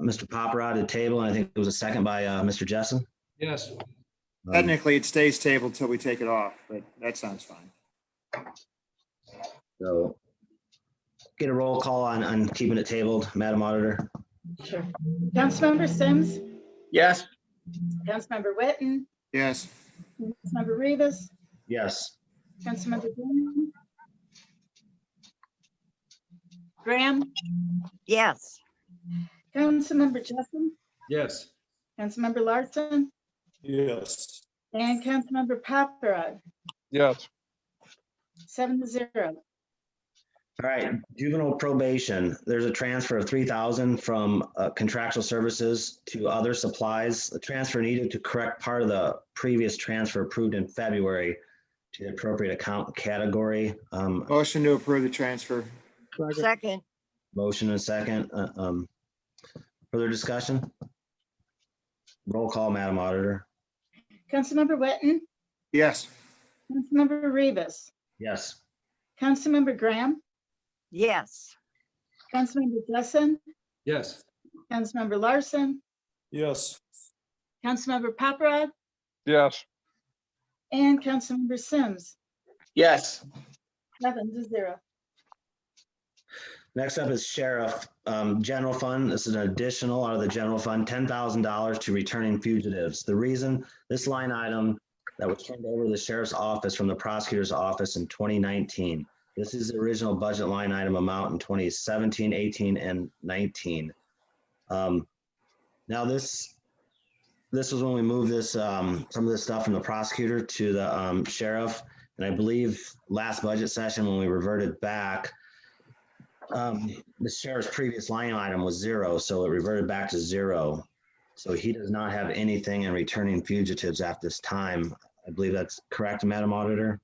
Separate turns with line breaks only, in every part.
Mr. Poprod uh, to table, and I think it was a second by uh, Mr. Jessen.
Yes,
Um,
Technically, it stays tabled till we take it off, but that sounds fine.
So get a roll call on, on keeping it tabled, Madam Auditor.
Sure. Councilmember Sims,
yes,
Councilmember Whitten,
Yes,
Councilmember Rivas,
Yes.
Councilmember Graham. Graham,
yes,
Councilmember Jessen,
yes.
Councilmember Larson,
Yes.
and Councilmember Paparad,
yes,
seven to zero.
All right, juvenile probation, there's a transfer of three thousand from uh, contractual services to other supplies. The transfer needed to correct part of the previous transfer approved in February to the appropriate account category. Um,
motion to approve the transfer.
second,
Motion and second. uh, um, Further discussion? Roll call, Madam Auditor.
Councilmember Whitten,
Yes,
Councilmember Rivas,
Yes.
Councilmember Graham,
yes,
Councilmember Jessen,
Yes.
Councilmember Larson,
Yes.
Councilmember Paparad,
yes,
and Councilmember Sims,
yes,
seven to zero.
Next up is Sheriff um, General Fund. This is an additional out of the general fund, ten thousand dollars to returning fugitives. The reason, this line item that was turned over to the sheriff's office from the prosecutor's office in twenty nineteen. This is the original budget line item amount in 2017, 18, and nineteen. Um, Now this, this was when we moved this, um, some of this stuff from the prosecutor to the um, sheriff. And I believe last budget session, when we reverted back, um, the sheriff's previous line item was zero, so it reverted back to zero. So he does not have anything in returning fugitives at this time. I believe that's correct, Madam Auditor?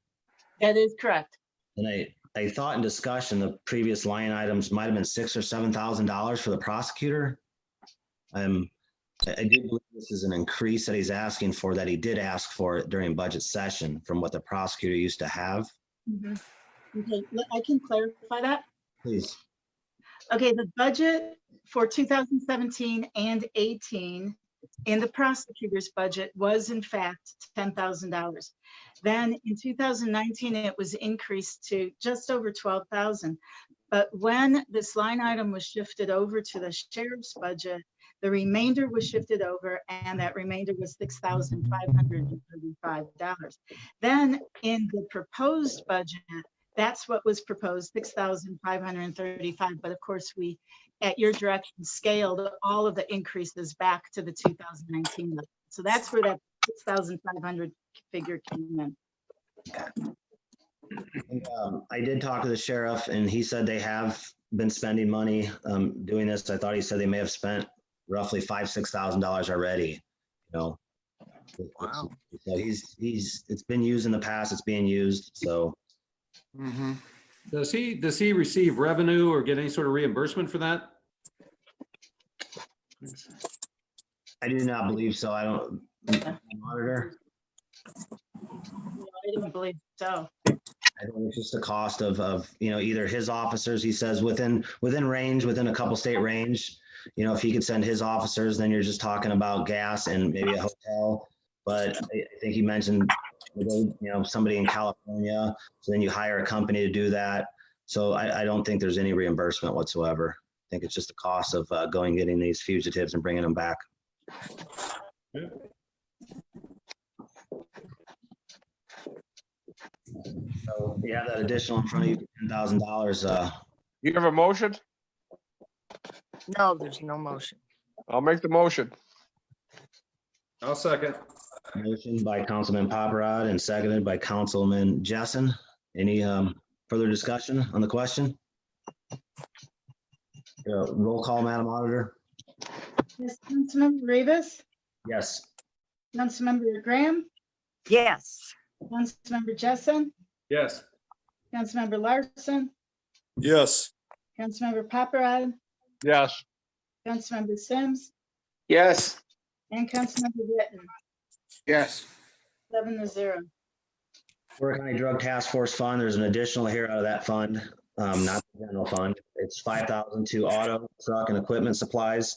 That is correct.
And I, I thought in discussion, the previous line items might have been six or seven thousand dollars for the prosecutor. Um, I, I do believe this is an increase that he's asking for, that he did ask for during budget session from what the prosecutor used to have.
Mhm. Okay, l- I can clarify that.
Please,
Okay, the budget for 2017 and 18 in the prosecutor's budget was in fact $10,000. Then in 2019, it was increased to just over 12,000. But when this line item was shifted over to the sheriff's budget, the remainder was shifted over and that remainder was $6,535. Then in the proposed budget, that's what was proposed, six thousand five hundred and thirty-five, but of course, we, at your direction, scaled all of the increases back to the two thousand nineteen level. So that's where that six thousand five hundred figure came in.
And, um, I did talk to the sheriff and he said they have been spending money, um, doing this. I thought he said they may have spent roughly five, six thousand dollars already, you know? Wow. So he's, he's, it's been used in the past, it's being used, so
hmm
Does he, does he receive revenue or get any sort of reimbursement for that?
I do not believe so. I don't. Monitor,
No, I didn't believe so.
I think it's just the cost of, of, you know, either his officers, he says, within, within range, within a couple state range. You know, if he could send his officers, then you're just talking about gas and maybe a hotel. But I I think he mentioned, you know, somebody in California, so then you hire a company to do that. So I, I don't think there's any reimbursement whatsoever. I think it's just the cost of uh, going, getting these fugitives and bringing them back. So you have that additional in front of you, ten thousand dollars, uh,
you have a motion?
no, there's no motion,
I'll make the motion,
I'll second.
Motion by Councilman Paparad and seconded by Councilman Jessen. Any um, further discussion on the question? Uh, Roll call, Madam Auditor?
Yes, Councilmember Rivas,
Yes.
Councilmember Graham,
yes.
Councilmember Jessen,
Yes.
Councilmember Larson,
Yes.
Councilmember Paparad,
yes.
Councilmember Sims,
yes.
and Councilmember Whitten,
yes.
seven to zero.
Porter County Drug Task Force Fund, there's an additional here out of that fund, um, not the general fund. It's five thousand to auto, truck and equipment supplies.